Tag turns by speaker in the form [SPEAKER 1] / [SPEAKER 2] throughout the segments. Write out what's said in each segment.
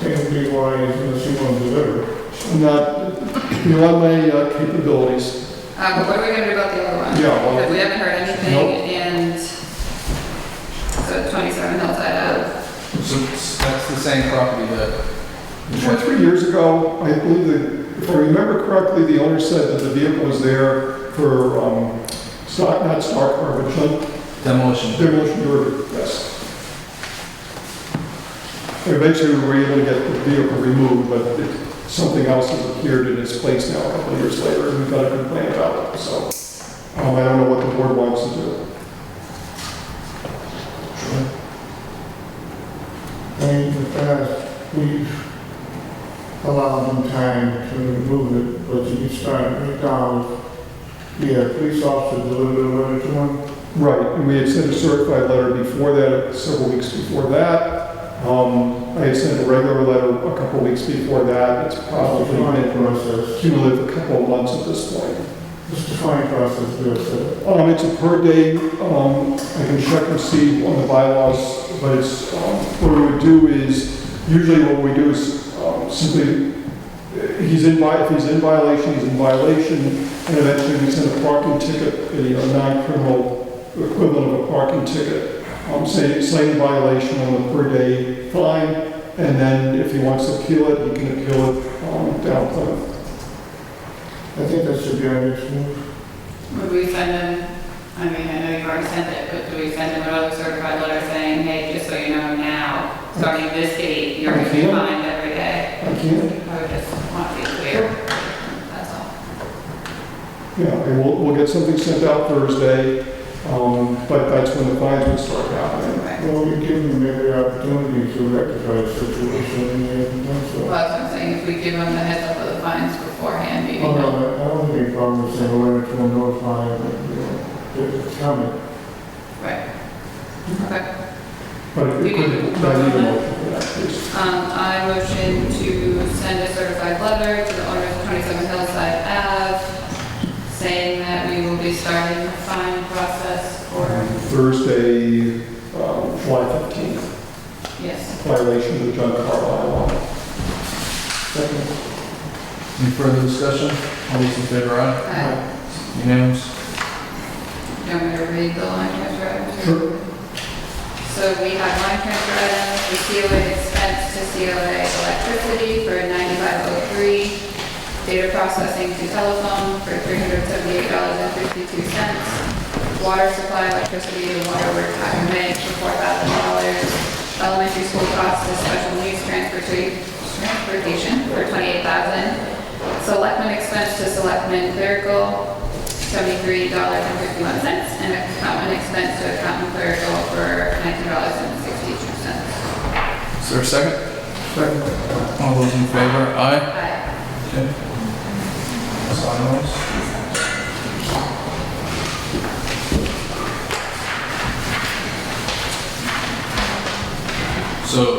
[SPEAKER 1] Can't be why unless you want to deliver.
[SPEAKER 2] Not beyond my uh, capabilities.
[SPEAKER 3] Uh, but what are we gonna do about the other one?
[SPEAKER 2] Yeah, well-
[SPEAKER 3] Because we haven't heard anything, and so 27 Hillside Ave.
[SPEAKER 4] So s- that's the same property that,
[SPEAKER 2] Two or three years ago, I believe that, if I remember correctly, the owner said that the vehicle was there for, um, stock, not stock car, but junk
[SPEAKER 4] demolition.
[SPEAKER 2] demolition derby, yes. Eventually, we were able to get the vehicle removed, but it- something else has appeared in its place now a couple of years later, and we've got a complaint about it, so. Um, I don't know what the board wants to do.
[SPEAKER 1] And in the past, we've allowed them time to remove it, but you can start at McDonald's. Yeah, police officer delivered a letter to them.
[SPEAKER 2] Right, and we had sent a certified letter before that, several weeks before that. Um, I had sent a regular letter a couple weeks before that. It's
[SPEAKER 1] It's a
[SPEAKER 2] probably
[SPEAKER 1] fine
[SPEAKER 2] been
[SPEAKER 1] process.
[SPEAKER 2] cumulative a couple of months at this point.
[SPEAKER 1] It's a fine process, Bill said.
[SPEAKER 2] Um, it's a per day, um, I can check and see on the bylaws, but it's, um, what we would do is, usually what we do is, um, simply, uh, he's in vi, if he's in violation, he's in violation, and eventually we send a parking ticket, a uh, non-criminal equivalent of a parking ticket, um, say, citing violation on the per day fine, and then if he wants to appeal it, he can appeal it, um, down Plymouth.
[SPEAKER 1] I think that should be our next move.
[SPEAKER 3] Would we send them, I mean, I know you've already sent it, but do we send them another certified letter saying, hey, just so you know now, starting this date, you're gonna be
[SPEAKER 2] Okay.
[SPEAKER 3] fined every day?
[SPEAKER 2] I can't
[SPEAKER 3] I would just want to be clear, that's all.
[SPEAKER 2] Yeah, and we'll, we'll get something sent out Thursday, um, but that's when the fines would start happening.
[SPEAKER 3] Okay.
[SPEAKER 1] Well, we give them every opportunity to rectify the situation, and they haven't done so.
[SPEAKER 3] Well, that's what I'm saying, if we give them the heads up of the fines beforehand, maybe
[SPEAKER 1] Oh,
[SPEAKER 3] they'll
[SPEAKER 1] no, I don't have any problem with saying, we're going to notify, you know, it's coming.
[SPEAKER 3] Right. Okay.
[SPEAKER 2] But if
[SPEAKER 3] We
[SPEAKER 2] it could, I
[SPEAKER 3] can
[SPEAKER 2] need
[SPEAKER 3] vote
[SPEAKER 2] a
[SPEAKER 3] on that?
[SPEAKER 2] motion for that, please.
[SPEAKER 3] Um, I motion to send a certified letter to the owner of 27 Hillside Ave saying that we will be starting the fine process for,
[SPEAKER 2] Um, Thursday, um, July fifteenth,
[SPEAKER 3] yes.
[SPEAKER 2] violation of the junk car bylaw.
[SPEAKER 1] Second,
[SPEAKER 4] Any further discussion? All those in favor, aye?
[SPEAKER 3] Uh,
[SPEAKER 4] Unanimous?
[SPEAKER 3] Do you want me to read the line transfer items?
[SPEAKER 2] Sure.
[SPEAKER 3] So we have line transfer items, the COA expense to COA electricity for 9503, data processing to telephone for $378.52, water supply, electricity, and water work time made for $4,000, elementary school costs to special needs transportation transportation for $28,000, selectmen expense to selectmen clerical, $73.51, and accountant expense to accountant clerical for $19.62.
[SPEAKER 4] Is there a second?
[SPEAKER 1] second,
[SPEAKER 4] All those in favor, aye?
[SPEAKER 3] Aye.
[SPEAKER 4] Okay. Sign those. So,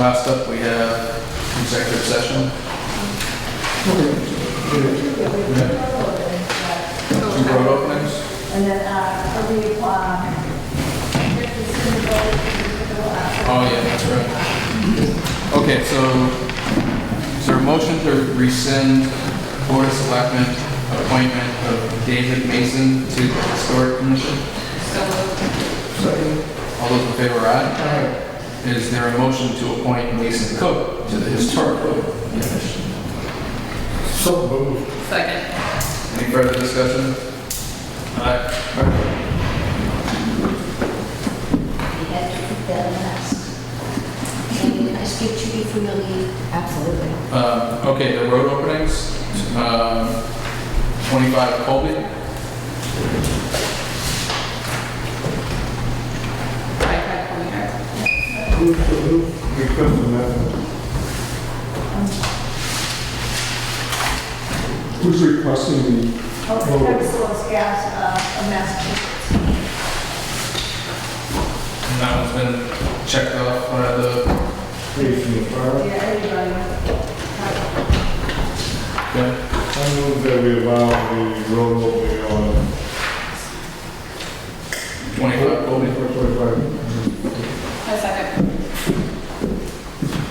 [SPEAKER 4] last up, we have executive session. Yeah. Two road openings?
[SPEAKER 5] And then, uh, for the, uh, if the symbol, uh,
[SPEAKER 4] Oh, yeah, that's right. Okay, so is there a motion to rescind Board of Selectmen appointment of David Mason to the Historic Commission?
[SPEAKER 3] So moved.
[SPEAKER 4] All those in favor, aye? Is there a motion to appoint Mason Cook to the Historic Commission?
[SPEAKER 1] so moved.
[SPEAKER 3] Second.
[SPEAKER 4] Any further discussion? Aye.
[SPEAKER 5] we had to put that last. Can I speak to you from your lead? Absolutely.
[SPEAKER 4] Um, Okay, the road openings, um, 25 Colby.
[SPEAKER 3] Aye, Craig Corner.
[SPEAKER 1] Who's the who? Because of that.
[SPEAKER 2] Who's requesting the,
[SPEAKER 5] Oh, Travis Solis Gas, uh, of Massachusetts.
[SPEAKER 4] And that one's been checked off by the
[SPEAKER 1] Facing the fire.
[SPEAKER 5] Yeah, everybody.
[SPEAKER 4] Okay.
[SPEAKER 1] I move that we allow the road opening on